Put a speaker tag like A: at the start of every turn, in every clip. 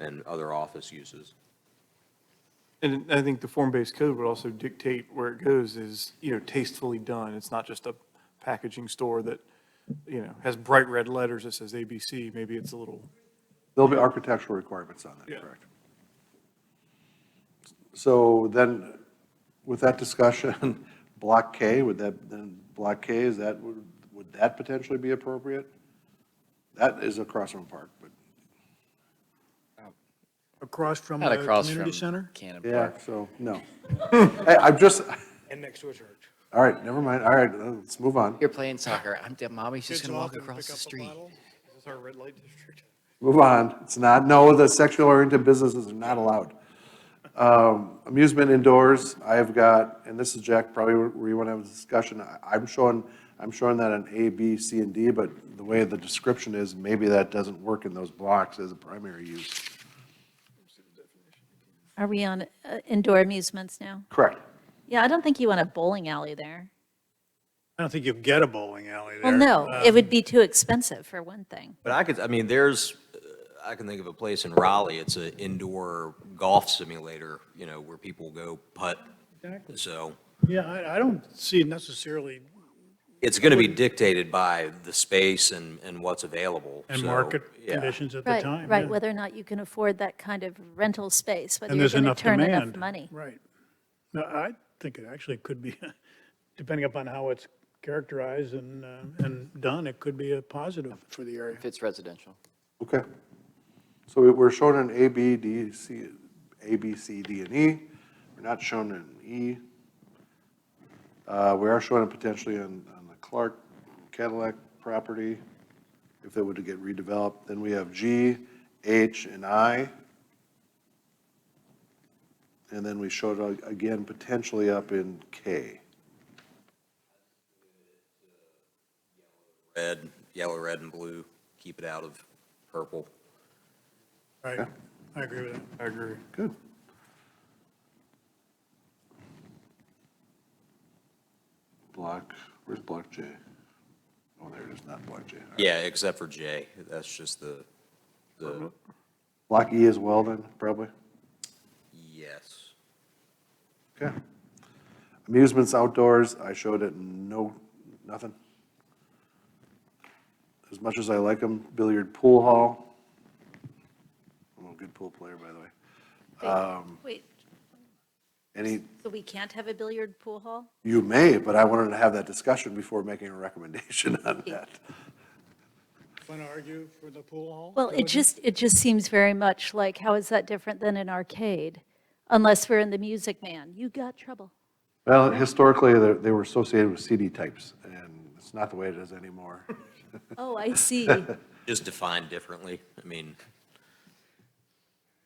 A: and other office uses.
B: And I think the form-based code would also dictate where it goes is, you know, tastefully done. It's not just a packaging store that, you know, has bright red letters that says ABC. Maybe it's a little,
C: There'll be architectural requirements on
B: Yeah.
C: that, correct? So then, with that discussion, Block K, would that, then Block K, is that, would would that potentially be appropriate? That is across from Park, but,
D: Across from
E: Not
D: the
E: across
D: community
E: from
D: center?
E: Cannon
C: yeah,
E: Park.
C: so, no. Hey, I'm just,
D: And next to a church.
C: all right, never mind, all right, let's move on.
E: You're playing soccer. I'm, dead. mommy's just gonna walk
D: Kids off and
E: across
D: pick
E: the
D: up a
E: street.
D: bottle. Is this our red light district?
C: Move on. It's not, no, the sexual oriented businesses are not allowed. Um, Amusement indoors, I've got, and this is Jack, probably where you want to have a discussion. I- I'm showing, I'm showing that on A, B, C, and D, but the way the description is, maybe that doesn't work in those blocks as a primary use.
F: Are we on uh, indoor amusements now?
C: Correct.
F: Yeah, I don't think you want a bowling alley there.
D: I don't think you'll get a bowling alley there.
F: Well, no, it would be too expensive for one thing.
A: But I could, I mean, there's, uh, I can think of a place in Raleigh, it's an indoor golf simulator, you know, where people go putt.
D: Exactly.
A: So
D: Yeah, I, I don't see necessarily
A: it's going to be dictated by the space and, and what's available.
D: and
A: So,
D: market
A: yeah.
D: conditions at the
F: Right,
D: time.
F: right,
D: yeah.
F: whether or not you can afford that kind of rental space, whether
D: And
F: you're
D: there's
F: going to
D: enough
F: turn
D: demand.
F: enough money.
D: Right. No, I think it actually could be, depending upon how it's characterized and, uh, and done, it could be a positive for the area.
E: If it's residential.
C: Okay. So we- we're shown in A, B, D, C, A, B, C, D, and E. We're not shown in E. Uh, We are shown it potentially on, on the Clark Cadillac property, if it were to get redeveloped. Then we have G, H, and I. And then we showed it again potentially up in K.
A: Red, yellow, red, and blue, keep it out of purple.
D: Right. I agree with that. I agree.
C: Good. Block, where's block J? Oh, there it is, not block J. All right.
A: Yeah, except for J, that's just the, the,
C: Block E as well then, probably?
A: yes.
C: Okay. Amusements outdoors, I showed it, no, nothing. As much as I like them, billiard pool hall. I'm a good pool player, by the way.
F: Wait,
C: Any,
F: so we can't have a billiard pool hall?
C: you may, but I wanted to have that discussion before making a recommendation on that.
D: Want to argue for the pool hall?
F: Well, it just, it just seems very much like, how is that different than an arcade? Unless we're in the Music Man, you got trouble.
C: Well, historically, they they were associated with CD types, and it's not the way it is anymore.
F: Oh, I see.
A: Just defined differently, I mean.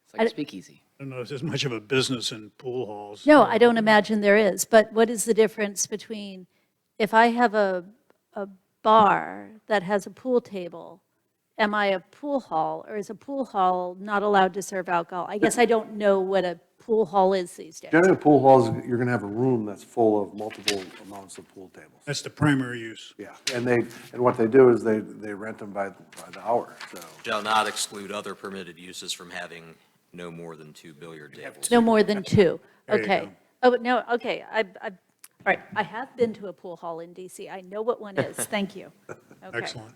E: It's like
F: I-
E: speakeasy.
D: I don't know if there's much of a business in pool halls.
F: No, I don't imagine there is, but what is the difference between, if I have a, a bar that has a pool table, am I a pool hall, or is a pool hall not allowed to serve alcohol? I guess I don't know what a pool hall is these days.
C: Generally, pool halls, you're going to have a room that's full of multiple amounts of pool tables.
D: That's the primary use.
C: Yeah, and they, and what they do is they, they rent them by, by the hour, so.
A: Shall not exclude other permitted uses from having no more than two billiard tables.
F: No more than two,
D: you
F: okay. Oh, no, okay, I, I, all right, I have been to a pool hall in DC, I know what one is, thank you. Okay.
D: Excellent.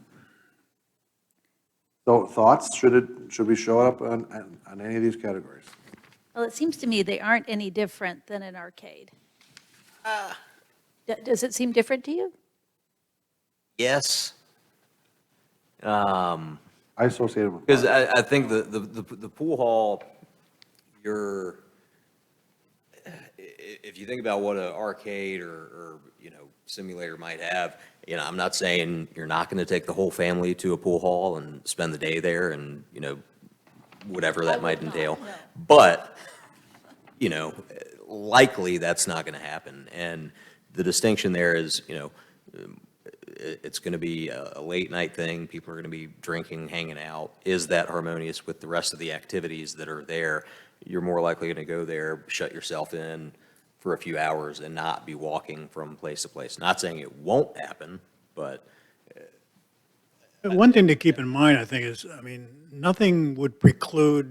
C: So thoughts, should it, should we show it up on, on- on any of these categories?
F: Well, it seems to me they aren't any different than an arcade. D- Does it seem different to you?
A: Yes,
C: I associate them with,
A: because I, I think the, the, the the pool hall, you're, i- i- if you think about what an arcade or, or, you know, simulator might have, you know, I'm not saying you're not going to take the whole family to a pool hall and spend the day there and, you know, whatever that might entail. But, you know, likely that's not going to happen. And the distinction there is, you know, it- it's going to be a a late night thing, people are going to be drinking, hanging out. Is that harmonious with the rest of the activities that are there? You're more likely going to go there, shut yourself in for a few hours and not be walking from place to place. Not saying it won't happen, but
D: One thing to keep in mind, I think, is, I mean, nothing would preclude